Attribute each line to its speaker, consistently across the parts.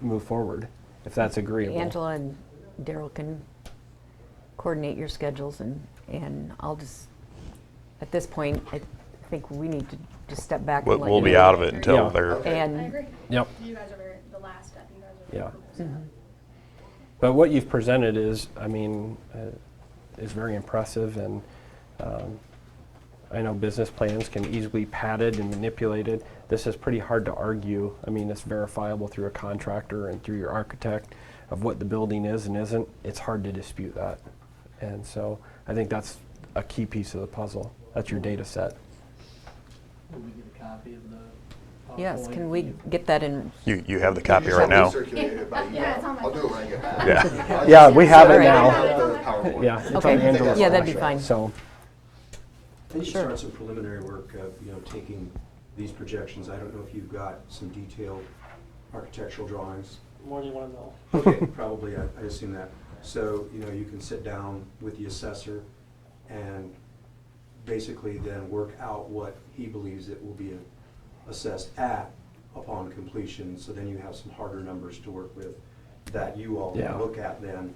Speaker 1: move forward, if that's agreeable.
Speaker 2: Angela and Daryl can coordinate your schedules and, and I'll just, at this point, I think we need to just step back
Speaker 3: We'll,
Speaker 2: and let
Speaker 3: we'll
Speaker 2: you
Speaker 3: be
Speaker 2: know.
Speaker 3: out of it until
Speaker 1: Yeah.
Speaker 3: they're,
Speaker 2: And-
Speaker 4: I agree.
Speaker 1: Yep.
Speaker 4: You guys are very, the last step, you guys are very
Speaker 1: Yeah.
Speaker 4: approval step.
Speaker 1: But what you've presented is, I mean, uh, is very impressive, and um, I know business plans can easily be padded and manipulated. This is pretty hard to argue. I mean, it's verifiable through a contractor and through your architect of what the building is and isn't. It's hard to dispute that. And so I think that's a key piece of the puzzle. That's your data set.
Speaker 5: Will we get a copy of the?
Speaker 2: Yes,
Speaker 5: PowerPoint?
Speaker 2: can we get that in?
Speaker 3: you, you have the copy right now.
Speaker 4: Yeah, it's on my
Speaker 6: I'll do it when I get back.
Speaker 3: Yeah.
Speaker 1: Yeah, we have it
Speaker 2: Sorry.
Speaker 1: now.
Speaker 6: I'll do the PowerPoint.
Speaker 1: Yeah, it's on
Speaker 2: Okay.
Speaker 1: Angela's
Speaker 2: Yeah, that'd be
Speaker 1: flash,
Speaker 2: fine.
Speaker 1: So,
Speaker 7: I need to start some preliminary work, uh, you know, taking these projections. I don't know if you've got some detailed architectural drawings.
Speaker 5: More than one mill.
Speaker 7: Okay, probably, I I assume that. So, you know, you can sit down with the assessor and basically then work out what he believes it will be assessed at upon completion. So then you have some harder numbers to work with that you all
Speaker 1: Yeah.
Speaker 7: can look at then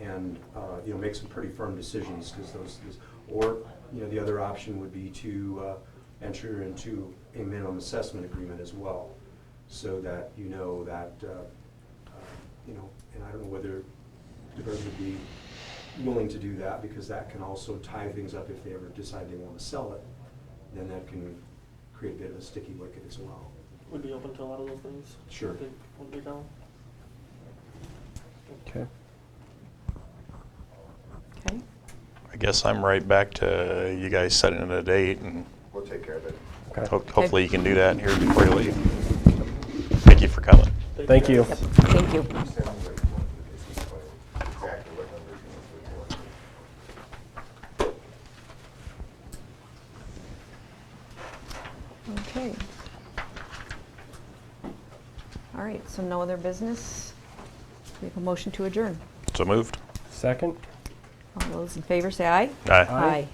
Speaker 7: and, uh, you know, make some pretty firm decisions because those, those- or, you know, the other option would be to uh, enter into a minimum assessment agreement as well. So that you know that, uh, you know, and I don't know whether DeBerg would be willing to do that, because that can also tie things up if they ever decide they want to sell it, then that can create a bit of a sticky wicket as well.
Speaker 5: We'd be open to a lot of those things.
Speaker 7: Sure.
Speaker 5: Big- when they go.
Speaker 1: okay.
Speaker 2: Okay.
Speaker 3: I guess I'm right back to you guys setting a date and
Speaker 6: We'll take care of it.
Speaker 1: okay.
Speaker 3: ho- hopefully you can do that here before you leave. Thank you for coming.
Speaker 1: Thank you.
Speaker 2: Yep, thank you.
Speaker 6: Sounds like you want to do this, but exactly what numbers you want to do.
Speaker 2: Okay. All right, so no other business? We have a motion to adjourn.
Speaker 3: So moved.
Speaker 1: Second?
Speaker 2: All those in favor, say aye.
Speaker 3: Aye.
Speaker 1: Aye.